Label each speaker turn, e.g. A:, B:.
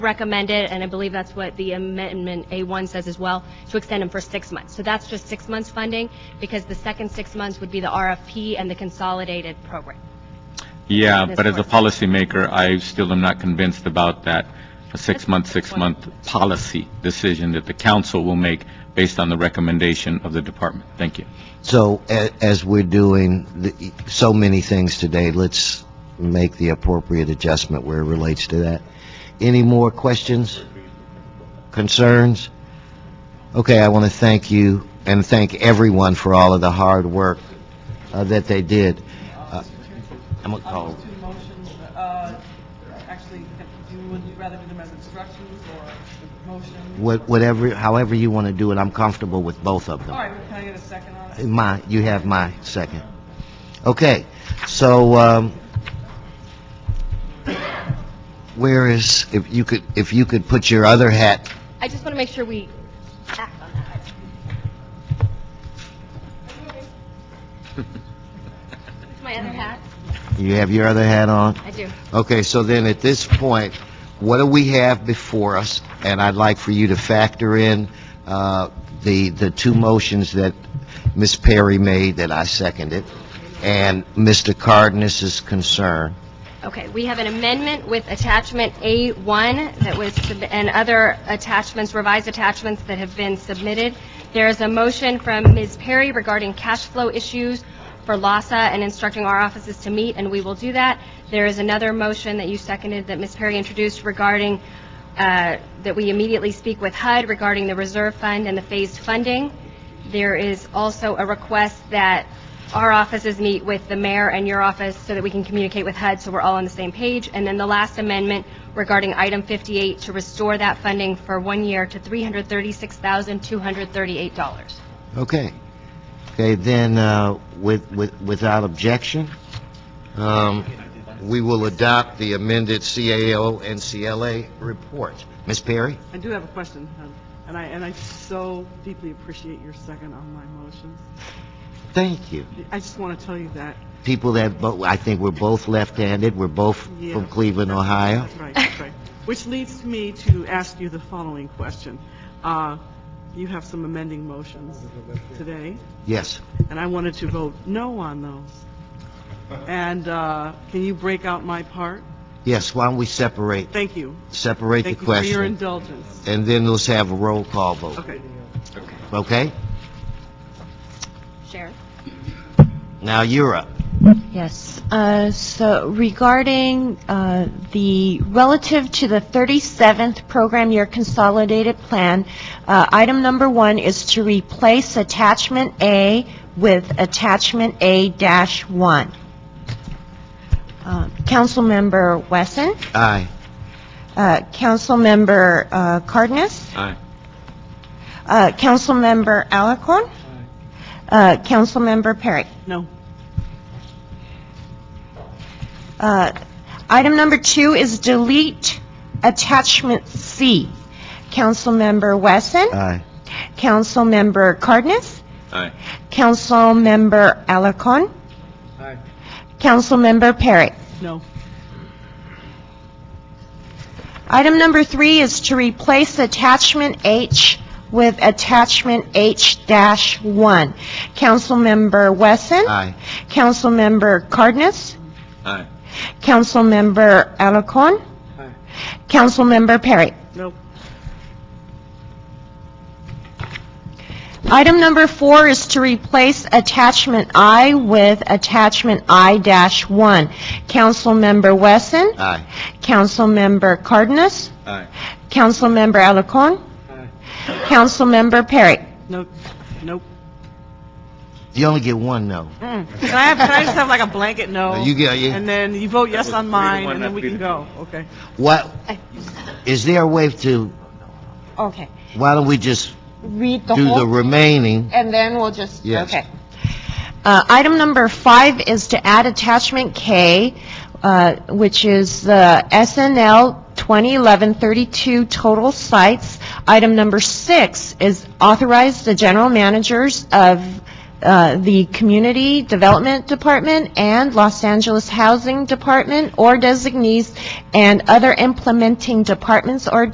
A: recommended, and I believe that's what the amendment A1 says as well, to extend them for six months. So that's just six months funding, because the second six months would be the RFP and the consolidated program.
B: Yeah,
A: Ms.
B: but as a
A: Horton.
B: policymaker, I still am not convinced about that, a six-month, six-month policy decision that the council will make based on the recommendation of the department. Thank you.
C: So a- as we're doing the- so many things today, let's make the appropriate adjustment where it relates to that. Any more questions? Concerns? Okay, I want to thank you and thank everyone for all of the hard work uh, that they did. Uh, I'm going to
D: On
C: call,
D: those two motions, uh, actually, do, would you rather do them as instructions or the motion?
C: What- whatever, however you want to do it, I'm comfortable with both of
D: All
C: them.
D: right, can I get a second on it?
C: My, you have my second. Okay, so, um, where is, if you could, if you could put your other hat,
A: I just want to make sure we act on that. It's my other hat.
C: you have your other hat on?
A: I do.
C: Okay, so then at this point, what do we have before us? And I'd like for you to factor in, uh, the, the two motions that Ms. Perry made that I seconded, and Mr. Cardenas's concern.
A: Okay, we have an amendment with attachment A1 that was, sub- and other attachments, revised attachments that have been submitted. There is a motion from Ms. Perry regarding cash flow issues for LASA and instructing our offices to meet, and we will do that. There is another motion that you seconded that Ms. Perry introduced regarding, uh, that we immediately speak with HUD regarding the reserve fund and the phased funding. There is also a request that our offices meet with the mayor and your office so that we can communicate with HUD, so we're all on the same page. And then the last amendment regarding item 58, to restore that funding for one year to $336,238.
C: Okay. Okay, then, uh, with, with, without objection, um, we will adopt the amended CAO and CLA report. Ms. Perry?
D: I do have a question, um, and I, and I so deeply appreciate your second on my motions.
C: Thank you.
D: I just want to tell you that,
C: People that, bo- I think we're both left-handed, we're both
D: yeah.
C: from Cleveland, Ohio.
D: That's right, that's right. Which leads me to ask you the following question. Uh, You have some amending motions today.
C: Yes.
D: and I wanted to vote no on those. And uh, can you break out my part?
C: Yes, why don't we separate,
D: Thank you.
C: separate the
D: Thank you for your
C: question?
D: indulgence.
C: And then let's have a roll call vote,
D: Okay.
C: okay?
A: Sharon?
C: Now you're up.
E: Yes. Uh, So regarding uh, the, relative to the 37th Program Year Consolidated Plan, uh, item number one is to replace attachment A with attachment A dash one. Uh, Councilmember Wesson,
C: Aye.
E: uh, Councilmember uh, Cardenas,
B: Aye.
E: uh, Councilmember Alacon, uh, Councilmember Perry.
D: No.
E: Uh, Item number two is delete attachment C. Councilmember Wesson,
C: Aye.
E: Councilmember Cardenas,
B: Aye.
E: Councilmember Alacon, Councilmember Perry.
D: No.
E: Item number three is to replace attachment H with attachment H dash one. Councilmember Wesson,
C: Aye.
E: Councilmember Cardenas,
B: Aye.
E: Councilmember Alacon, Councilmember Perry.
D: No.
E: Item number four is to replace attachment I with attachment I dash one. Councilmember Wesson,
C: Aye.
E: Councilmember Cardenas,
B: Aye.
E: Councilmember Alacon, Councilmember Perry.
D: No. Nope.
C: You only get one no.
D: Mm. Can I have, can I just have like a blanket no?
C: You get, you...
D: And then you vote yes on mine,
B: one,
D: and then
B: that'd
D: we
B: be
D: can
B: the-
D: go. Okay.
C: What, is there a way to,
E: Okay.
C: why don't we just
E: Read the
C: do the
E: whole,
C: remaining?
E: and then we'll just,
C: Yes.
E: okay. Uh, Item number five is to add attachment K, uh, which is the SNL 2011-32 total sites. Item number six is authorize the general managers of uh, the Community Development Department and Los Angeles Housing Department or designees and other implementing departments or